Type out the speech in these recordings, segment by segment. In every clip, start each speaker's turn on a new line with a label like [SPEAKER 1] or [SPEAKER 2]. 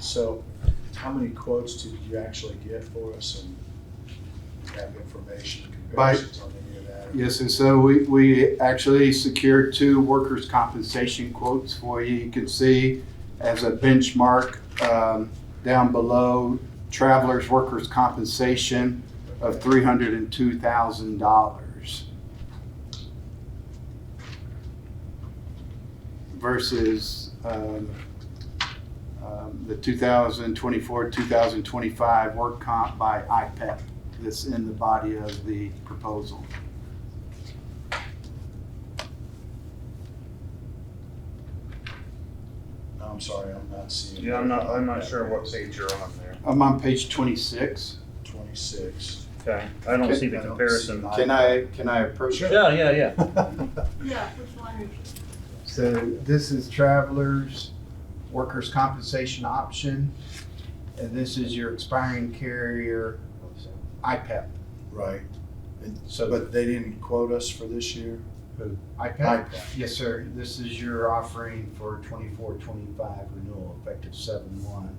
[SPEAKER 1] So how many quotes did you actually get for us and have information
[SPEAKER 2] By-
[SPEAKER 1] comparisons on any of that?
[SPEAKER 2] Yes, and so we, we actually secured two workers' compensation quotes for you. You can see as a benchmark, um, down below, travelers' workers' compensation of three hundred and two thousand dollars versus, um, um, the two thousand twenty-four, two thousand twenty-five work comp by IPEP that's in the body of the proposal.
[SPEAKER 1] No, I'm sorry, I'm not seeing.
[SPEAKER 3] Yeah, I'm not, I'm not sure what page you're on there.
[SPEAKER 2] I'm on page twenty-six.
[SPEAKER 1] Twenty-six.
[SPEAKER 3] Okay, I don't
[SPEAKER 2] Okay,
[SPEAKER 3] see the
[SPEAKER 1] I don't
[SPEAKER 3] comparison.
[SPEAKER 1] see
[SPEAKER 4] Can I, can I approach?
[SPEAKER 1] Sure.
[SPEAKER 3] Yeah, yeah, yeah.
[SPEAKER 5] Yeah, which one is it?
[SPEAKER 4] So this is travelers, workers' compensation option, and this is your expiring carrier IPEP.
[SPEAKER 1] Right, and,
[SPEAKER 4] So-
[SPEAKER 1] but they didn't quote us for this year?
[SPEAKER 4] IPEP? Yes, sir. This is your offering for twenty-four, twenty-five renewal effective seven one.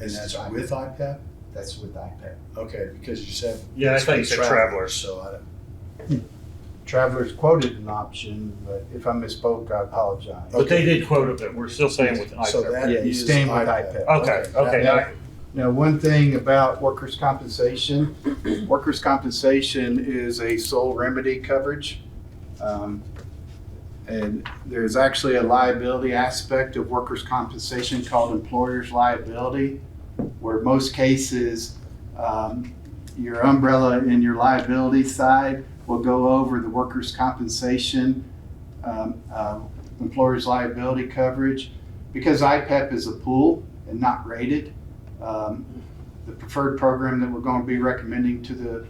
[SPEAKER 1] And that's with IPAP?
[SPEAKER 4] That's with IPEP.
[SPEAKER 1] Okay, because you said.
[SPEAKER 3] Yeah, I thought you said travelers.
[SPEAKER 1] So I, don't-
[SPEAKER 4] Travelers quoted an option, but if I misspoke, I apologize.
[SPEAKER 3] But they did quote it, but we're still saying with an
[SPEAKER 1] so
[SPEAKER 3] iPad.
[SPEAKER 1] that
[SPEAKER 4] Yeah, you
[SPEAKER 1] is
[SPEAKER 4] stand with IPAP.
[SPEAKER 3] Okay, okay,
[SPEAKER 1] that-
[SPEAKER 3] now-
[SPEAKER 2] Now, one thing about workers' compensation, workers' compensation is a sole remedy coverage. Um, And there's actually a liability aspect of workers' compensation called employer's liability, where most cases, um, your umbrella and your liability side will go over the workers' compensation, um, uh, employer's liability coverage. Because IPEP is a pool and not rated, um, the preferred program that we're going to be recommending to the,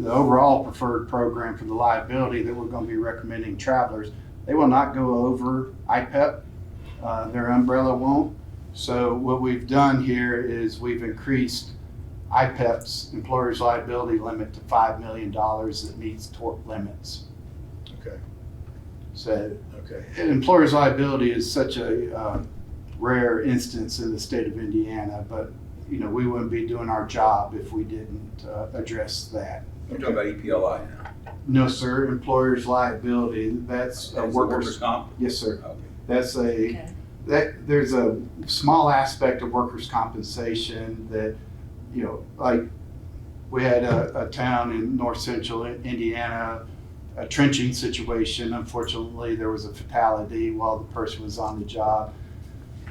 [SPEAKER 2] the overall preferred program for the liability that we're going to be recommending travelers, they will not go over IPEP. Uh, their umbrella won't. So what we've done here is we've increased IPEP's employer's liability limit to $5 million that meets tort limits.
[SPEAKER 1] Okay,
[SPEAKER 2] So
[SPEAKER 1] okay,
[SPEAKER 2] and employer's liability is such a uh, rare instance in the state of Indiana, but, you know, we wouldn't be doing our job if we didn't uh, address that.
[SPEAKER 6] You're talking about E EPLI now.
[SPEAKER 2] No, sir, employer's liability, that's a
[SPEAKER 6] That's the
[SPEAKER 2] workers,
[SPEAKER 6] comp?
[SPEAKER 2] yes, sir.
[SPEAKER 6] Okay.
[SPEAKER 2] That's a,
[SPEAKER 5] Okay.
[SPEAKER 2] that, there's a small aspect of workers' compensation that, you know, like, we had a, a town in north central Indiana a trenching situation. Unfortunately, there was a fatality while the person was on the job.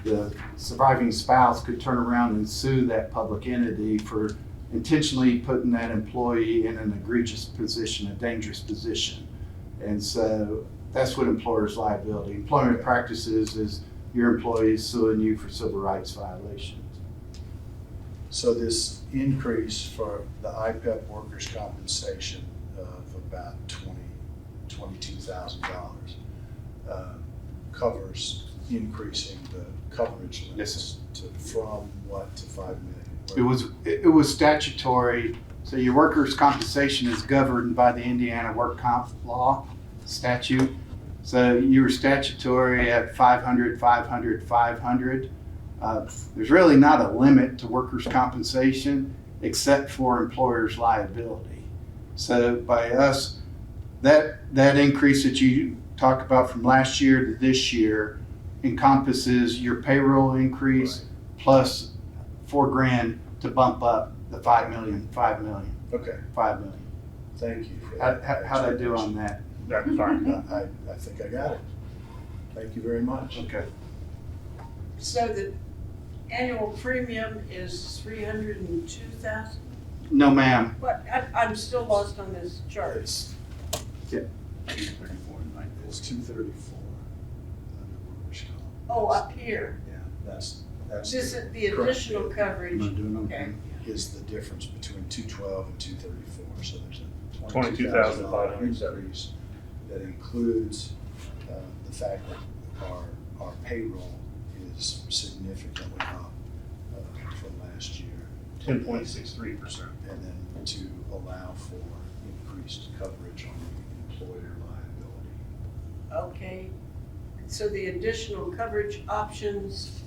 [SPEAKER 2] The surviving spouse could turn around and sue that public entity for intentionally putting that employee in an egregious position, a dangerous position. And so that's what employer's liability. Employment practices is your employees suing you for civil rights violations.
[SPEAKER 1] so this increase for the IPAP workers' compensation uh, of about twenty, twenty-two thousand dollars uh, covers increasing the coverage limits to, from what to five million?
[SPEAKER 2] It was, it it was statutory, so your workers' compensation is governed by the Indiana work comp law statute. So you were statutory at 500, 500, 500. Uh, There's really not a limit to workers' compensation except for employers' liability. So by us, that, that increase that you talked about from last year to this year encompasses your payroll increase plus four grand to bump up the five million, five million,
[SPEAKER 1] Okay,
[SPEAKER 2] five million.
[SPEAKER 1] thank you. for
[SPEAKER 2] How,
[SPEAKER 1] that
[SPEAKER 2] how, how'd I do on that?
[SPEAKER 3] that's fine.
[SPEAKER 1] I, I think I got it. Thank you very much.
[SPEAKER 2] Okay.
[SPEAKER 5] So the annual premium is three hundred and two thousand?
[SPEAKER 2] No, ma'am.
[SPEAKER 5] What, I, I'm still lost on this chart.
[SPEAKER 1] It's,
[SPEAKER 6] Thirty-four and nine.
[SPEAKER 1] it's two thirty-four under workers' comp.
[SPEAKER 5] Oh, up here.
[SPEAKER 1] Yeah, that's, that's.
[SPEAKER 5] This is the additional
[SPEAKER 2] Am I
[SPEAKER 5] coverage.
[SPEAKER 2] doing okay?
[SPEAKER 5] Okay.
[SPEAKER 1] Is the difference between two twelve and two thirty-four, so there's a twenty-two thousand dollar
[SPEAKER 3] 22,570.
[SPEAKER 1] increase. That includes, uh, the fact that our, our payroll is significantly up, uh, from last year.
[SPEAKER 3] Ten point six three percent.
[SPEAKER 1] And then to allow for increased coverage on the employer liability.
[SPEAKER 5] Okay. So the additional coverage options